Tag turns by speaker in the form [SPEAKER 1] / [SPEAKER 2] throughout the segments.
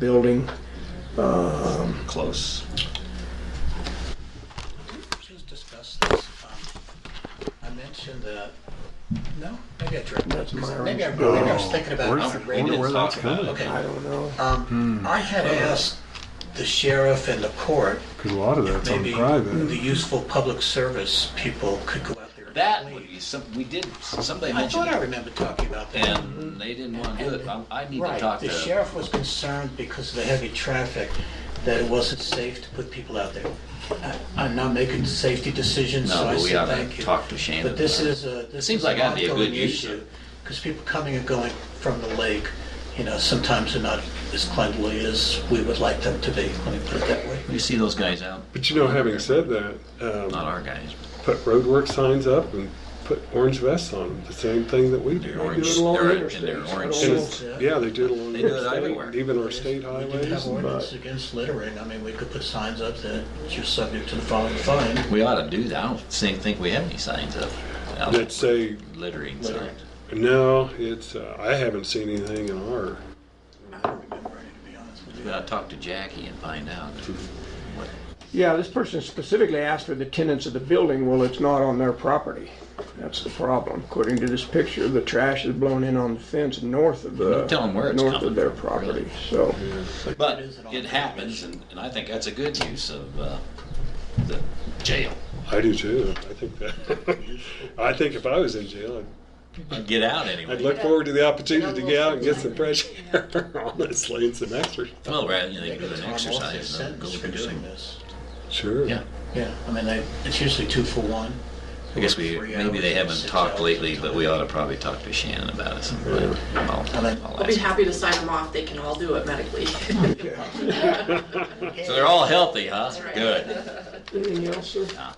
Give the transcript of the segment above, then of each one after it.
[SPEAKER 1] building.
[SPEAKER 2] Close.
[SPEAKER 3] Just discuss this. Um, I mentioned the, no, maybe I dreamt
[SPEAKER 1] That's
[SPEAKER 3] it.
[SPEAKER 1] my
[SPEAKER 3] Maybe I, maybe
[SPEAKER 1] original-
[SPEAKER 3] I was thinking about
[SPEAKER 4] Where's- Hmm.
[SPEAKER 3] how to rate
[SPEAKER 4] wonder where
[SPEAKER 3] it.
[SPEAKER 4] that's
[SPEAKER 2] Talk about
[SPEAKER 4] going.
[SPEAKER 2] it.
[SPEAKER 1] I
[SPEAKER 3] Okay.
[SPEAKER 1] don't know.
[SPEAKER 3] Um, I had asked the sheriff and the court,
[SPEAKER 4] Because a lot of that's on
[SPEAKER 3] maybe the
[SPEAKER 4] private.
[SPEAKER 3] useful public service people could go out there. and
[SPEAKER 2] That would
[SPEAKER 3] clean.
[SPEAKER 2] be some, we did, somebody
[SPEAKER 3] I
[SPEAKER 2] mentioned
[SPEAKER 3] thought I
[SPEAKER 2] it,
[SPEAKER 3] remembered talking about that.
[SPEAKER 2] and they didn't want to do it. I- I need to
[SPEAKER 3] Right,
[SPEAKER 2] talk
[SPEAKER 3] the
[SPEAKER 2] to,
[SPEAKER 3] sheriff was concerned because of the heavy traffic, that it wasn't safe to put people out there. I- I'm not making safety decisions,
[SPEAKER 2] No,
[SPEAKER 3] so I
[SPEAKER 2] but we
[SPEAKER 3] said
[SPEAKER 2] oughta
[SPEAKER 3] thank you.
[SPEAKER 2] talk to Shannon
[SPEAKER 3] But this
[SPEAKER 2] about it.
[SPEAKER 3] is a, this
[SPEAKER 2] Seems
[SPEAKER 3] is
[SPEAKER 2] like
[SPEAKER 3] an
[SPEAKER 2] that'd be a good
[SPEAKER 3] ongoing
[SPEAKER 2] use of-
[SPEAKER 3] issue, because people coming and going from the lake, you know, sometimes are not as cleanly as we would like them to be, let me put it that way.
[SPEAKER 2] you see those guys out,
[SPEAKER 4] But you know, having said that, um,
[SPEAKER 2] not our guys.
[SPEAKER 4] put roadwork signs up and put orange vests on them, the same thing that we do.
[SPEAKER 2] They're orange,
[SPEAKER 4] They do it along
[SPEAKER 2] they're,
[SPEAKER 4] interstate.
[SPEAKER 2] and they're
[SPEAKER 4] And
[SPEAKER 2] orange suits.
[SPEAKER 4] it's- Yeah, they do it along
[SPEAKER 2] They do it everywhere.
[SPEAKER 4] interstate, even our state
[SPEAKER 3] We do
[SPEAKER 4] highways.
[SPEAKER 3] have ordinance against littering, I mean, we could put signs up that you're subject to the following fine.
[SPEAKER 2] We ought to do that. I don't think, think we have any signs up. out
[SPEAKER 4] That say,
[SPEAKER 2] Littering signs.
[SPEAKER 4] no, it's, uh, I haven't seen anything in our,
[SPEAKER 3] I don't remember any, to be honest with you.
[SPEAKER 2] We ought to talk to Jackie and find out.
[SPEAKER 1] Yeah, this person specifically asked for the tenants of the building. Well, it's not on their property. That's the problem. According to this picture, the trash is blown in on the fence north of the,
[SPEAKER 2] Don't tell 'em where it's
[SPEAKER 1] north of
[SPEAKER 2] coming
[SPEAKER 1] their
[SPEAKER 2] from,
[SPEAKER 1] property,
[SPEAKER 2] really.
[SPEAKER 1] so.
[SPEAKER 2] But
[SPEAKER 3] It is an
[SPEAKER 2] it
[SPEAKER 3] ongoing
[SPEAKER 2] happens,
[SPEAKER 3] issue.
[SPEAKER 2] and, and I think that's a good use of, uh, the jail.
[SPEAKER 4] I do too, I think that, I think if I was in jail, I'd
[SPEAKER 2] Get out
[SPEAKER 4] I'd
[SPEAKER 2] anyway.
[SPEAKER 4] look forward to the opportunity to get out and get some fresh air, honestly, and some exercise.
[SPEAKER 2] Well, rather, you know, they
[SPEAKER 3] They
[SPEAKER 2] can do
[SPEAKER 3] get
[SPEAKER 2] an
[SPEAKER 3] time off their
[SPEAKER 2] exercise and go
[SPEAKER 3] sentence for
[SPEAKER 2] for doing
[SPEAKER 3] doing
[SPEAKER 2] it.
[SPEAKER 3] this.
[SPEAKER 4] Sure.
[SPEAKER 2] Yeah,
[SPEAKER 3] Yeah, I mean, they, it's usually two for one.
[SPEAKER 2] I guess we,
[SPEAKER 3] Three
[SPEAKER 2] maybe they
[SPEAKER 3] hours,
[SPEAKER 2] haven't
[SPEAKER 3] six
[SPEAKER 2] talked
[SPEAKER 3] hours.
[SPEAKER 2] lately, but we ought to probably talk to Shannon about it sometime. I'll- I'll
[SPEAKER 5] I'll be
[SPEAKER 2] ask.
[SPEAKER 5] happy to sign them off. They can all do it medically.
[SPEAKER 2] So they're all healthy, huh?
[SPEAKER 5] right.
[SPEAKER 2] Good.
[SPEAKER 1] Anything else, sir?
[SPEAKER 2] No.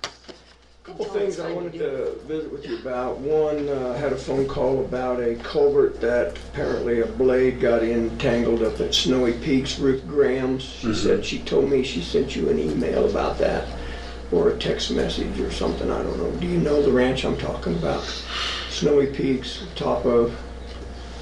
[SPEAKER 1] Couple things I wanted to visit with you about. One, uh, had a phone call about a culvert that apparently a blade got entangled up at Snowy Peaks, Ruth Graham's. She said, she told me she sent you an email about that, or a text message or something, I don't know. Do you know the ranch I'm talking about? Snowy Peaks, top of,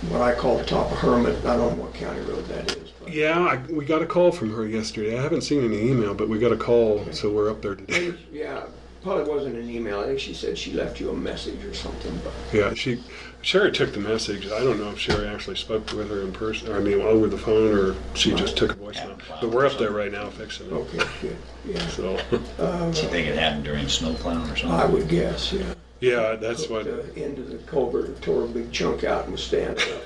[SPEAKER 1] what I call the top of Hermit, I don't know what county road that is. but-
[SPEAKER 4] Yeah, I, we got a call from her yesterday. I haven't seen any email, but we got a call, so we're up there today.
[SPEAKER 1] Yeah, probably wasn't an email, I think she said she left you a message or something, but.
[SPEAKER 4] Yeah, she, Sherry took the message. I don't know if Sherry actually spoke with her in person, or I mean, over the phone, or she just took a voicemail. But we're up there right now fixing it.
[SPEAKER 1] Okay, good, yeah.
[SPEAKER 4] So,
[SPEAKER 2] Do you think it happened during snow plowing or
[SPEAKER 1] I
[SPEAKER 2] something?
[SPEAKER 1] would guess, yeah.
[SPEAKER 4] yeah, that's what.
[SPEAKER 1] The end of the culvert and tore a big chunk out and was standing up.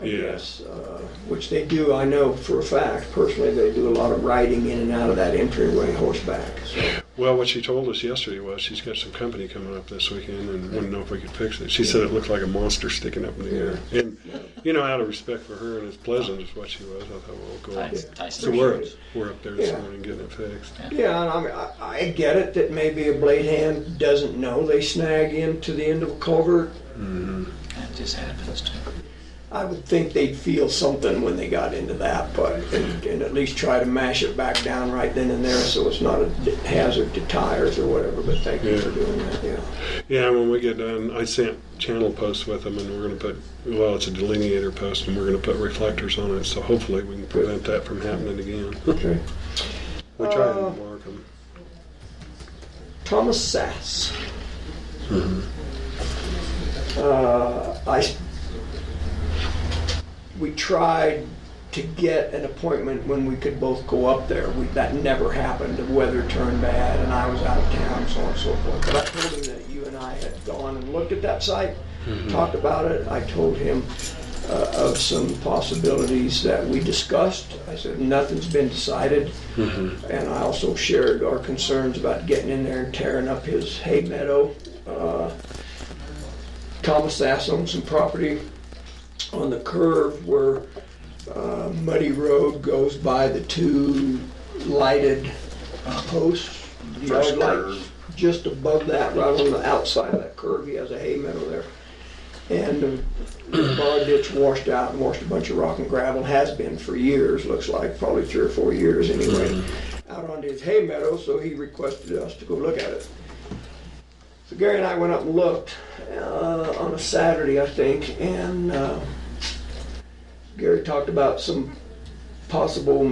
[SPEAKER 1] I
[SPEAKER 4] Yeah.
[SPEAKER 1] guess, uh, which they do, I know for a fact, personally, they do a lot of riding in and out of that entryway horseback, so.
[SPEAKER 4] Well, what she told us yesterday was she's got some company coming up this weekend and wanted to know if we could fix it. She said it looked like a monster sticking up in the air. And, you know, out of respect for her and as pleasant as what she was, I thought, well, we'll go up.
[SPEAKER 2] Tyson- Tyson
[SPEAKER 4] So we're,
[SPEAKER 2] Foods.
[SPEAKER 4] we're up there this
[SPEAKER 1] Yeah.
[SPEAKER 4] morning getting it fixed.
[SPEAKER 1] Yeah, and I mean, I, I get it that maybe a blade hand doesn't know they snag into the end of a culvert.
[SPEAKER 2] That just happens to.
[SPEAKER 1] I would think they'd feel something when they got into that, but, and, and at least try to mash it back down right then and there so it's not a hazard to tires or whatever, but thank you for doing that, yeah.
[SPEAKER 4] Yeah, when we get done, I sent channel posts with them and we're gonna put, well, it's a delineator post and we're gonna put reflectors on it. So hopefully we can prevent that from happening again.
[SPEAKER 1] Okay.
[SPEAKER 4] We try and mark them.
[SPEAKER 1] Thomas Sass. Uh, I, s- we tried to get an appointment when we could both go up there. We, that never happened. The weather turned bad and I was out of town, so on and so forth. But I told him that you and I had gone and looked at that site, talked about it. I told him uh, of some possibilities that we discussed. I said, nothing's been decided. And I also shared our concerns about getting in there and tearing up his hay meadow. Uh, Thomas Sass owns some property on the curve where uh, Muddy Road goes by the two lighted posts,
[SPEAKER 2] First
[SPEAKER 1] yard lights.
[SPEAKER 2] curve.
[SPEAKER 1] Just above that, right on the outside of that curve, he has a hay meadow there. And uh, the the bar ditch washed out and washed a bunch of rock and gravel, has been for years, looks like, probably three or four years anyway, out onto his hay meadow, so he requested us to go look at it. So Gary and I went up and looked uh, on a Saturday, I think, and uh, Gary talked about some possible